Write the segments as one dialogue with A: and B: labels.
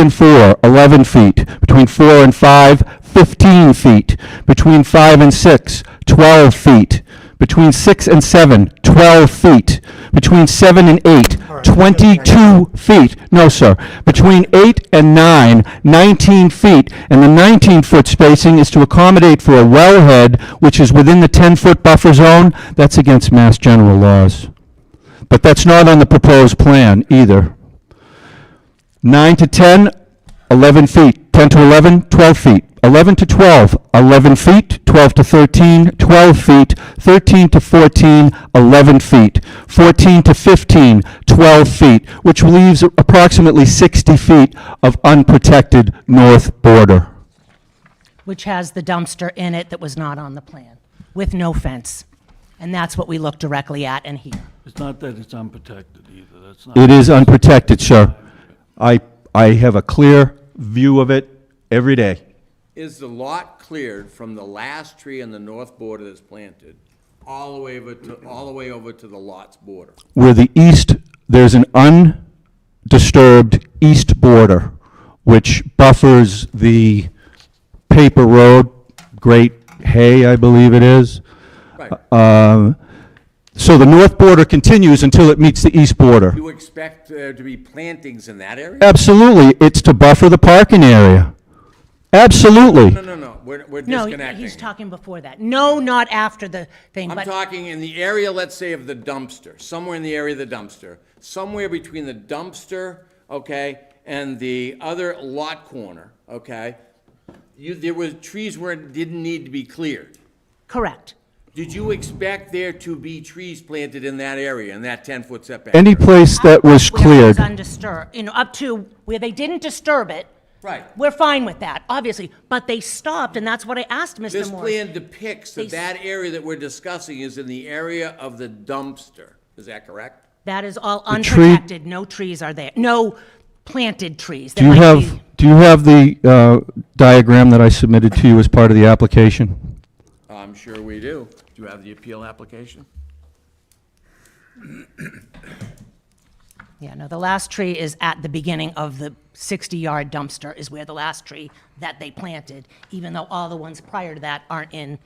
A: and four, 11 feet. Between four and five, 15 feet. Between five and six, 12 feet. Between six and seven, 12 feet. Between seven and eight,
B: right.
A: 22 feet. No, sir. Between eight and nine, 19 feet. And the 19-foot spacing is to accommodate for a wellhead, which is within the 10-foot buffer zone. That's against Mass General laws. But that's not on the proposed plan either. 9 to 10, 11 feet. 10 to 11, 12 feet. 11 to 12, 11 feet. 12 to 13, 12 feet. 13 to 14, 11 feet. 14 to 15, 12 feet, which leaves approximately 60 feet of unprotected north border.
C: which has the dumpster in it that was not on the plan, with no fence. And that's what we look directly at and hear.
D: It's not that it's unprotected either, that's not.
A: It is unprotected, sir. I, I have a clear view of it every day.
E: Is the lot cleared from the last tree on the north border that's planted, all the way over to, all the way over to the lot's border?
A: where the east, there's an undisturbed east border, which buffers the paper road, Great Hay, I believe it is.
E: Right.
A: Um, So the north border continues until it meets the east border.
E: You expect there to be plantings in that area?
A: Absolutely, it's to buffer the parking area. Absolutely.
E: No, no, no, we're, we're
C: No,
E: disconnecting.
C: he's talking before that. No, not after the thing,
E: I'm
C: but
E: talking in the area, let's say, of the dumpster, somewhere in the area of the dumpster, somewhere between the dumpster, okay, and the other lot corner, okay? You, there were trees where it didn't need to be cleared.
C: correct.
E: Did you expect there to be trees planted in that area, in that ten-foot setback?
A: Any place that was
C: Where it was
A: cleared.
C: undisturbed, you know, up to where they didn't disturb it.
E: Right.
C: We're fine with that, obviously, but they stopped, and that's what I asked
E: This
C: Mr. Morris.
E: plan depicts
C: They
E: that
C: s-
E: that area that we're discussing is in the area of the dumpster. Is that correct?
C: That is all
A: tree-
C: unprotected, no trees are there, no planted trees.
A: Do you have, do you have the uh, diagram that I submitted to you as part of the application?
E: I'm sure we do. Do you have the appeal application?
C: Yeah, no, the last tree is at the beginning of the 60-yard dumpster is where the last tree that they planted, even though all the ones prior to that aren't in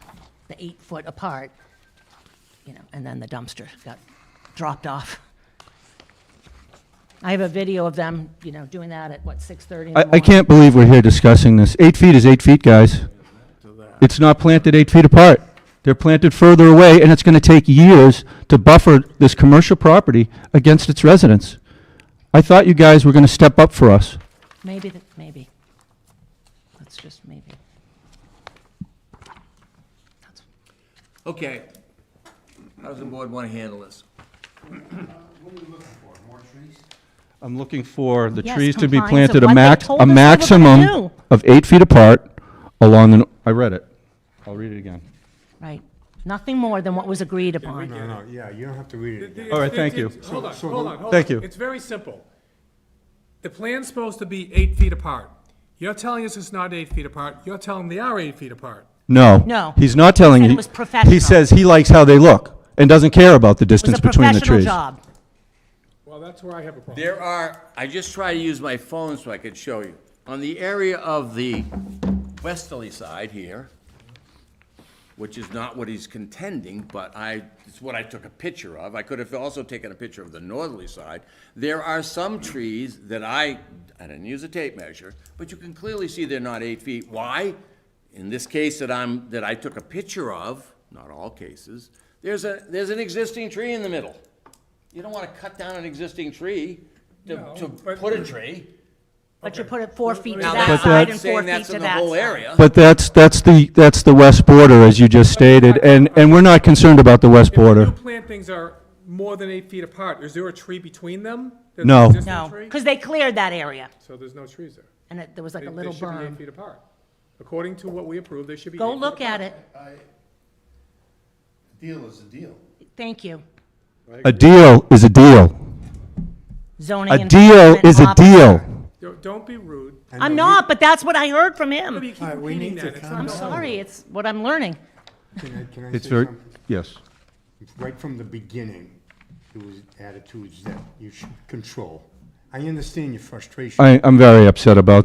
C: the eight-foot apart, you know, and then the dumpster got dropped off. I have a video of them, you know, doing that at, what, 6:30 in the
A: I, I
C: morning?
A: can't believe we're here discussing this. Eight feet is eight feet, guys. It's not planted eight feet apart. They're planted further away, and it's gonna take years to buffer this commercial property against its residents. I thought you guys were gonna step up for us.
C: Maybe, the- maybe. That's just maybe. That's-
E: Okay. How does the board want to handle this?
A: I'm looking for the
C: Yes,
A: trees to be
C: compliance
A: planted
C: of
A: a
C: what they
A: max,
C: told
A: a
C: us they were gonna
A: maximum
C: do.
A: of eight feet apart along the, n- I read it. I'll read it again.
C: Right. Nothing more than what was agreed upon.
B: No, no, yeah, you don't have to read it again.
A: All right, thank you.
F: Hold on, hold on, hold on.
A: Thank you.
F: It's very simple. The plan's supposed to be eight feet apart. You're telling us it's not eight feet apart, you're telling they are eight feet apart.
A: No.
C: No.
A: He's not telling
C: He
A: you.
C: said it was professional.
A: He says he likes how they look and doesn't care about the
C: It was
A: distance
C: a
A: between the trees.
C: professional job.
F: Well, that's where I have a problem.
E: There are, I just try to use my phone so I could show you. On the area of the westerly side here, which is not what he's contending, but I, it's what I took a picture of. I could have also taken a picture of the northerly side. There are some trees that I, I didn't use a tape measure, but you can clearly see they're not eight feet. Why? In this case that I'm, that I took a picture of, not all cases, there's a, there's an existing tree in the middle. You don't want to cut down an existing tree to, to put a tree.
C: But you put it four feet to
E: Now,
C: that
A: But
C: side
A: that-
C: and four
E: saying
C: feet
E: that's
C: to
E: in the
C: that
E: whole
C: side.
E: area.
A: But that's, that's the, that's the west border, as you just stated, and, and we're not concerned about the west
F: New
A: border.
F: plantings are more than eight feet apart. Is there a tree between them? There's
A: No.
F: an existing
C: No,
F: tree?
C: because they cleared that area,
F: So there's no trees there.
C: and it, there was like
F: They-
C: a little
F: They should be eight
C: berm.
F: feet apart. According to what we approved, they should be eight feet
C: Go
F: apart.
C: look at it,
G: Deal is a deal.
C: thank you.
A: A deal is a deal.
C: Zoning.
A: A deal
C: enforcement
A: is a
C: officer.
A: deal.
F: Don't- Don't be rude.
C: I'm not, but that's what I heard from him.
F: You keep
B: right, we
F: repeating
B: need
F: that.
B: to
F: It's
B: calm
F: not
C: I'm
B: down.
C: sorry, it's what I'm learning.
B: Can I- can I
A: It's
B: say
A: very,
B: something?
A: yes.
B: Right from the beginning, it was attitudes that you should control. I understand your frustration.
A: I, I'm very upset about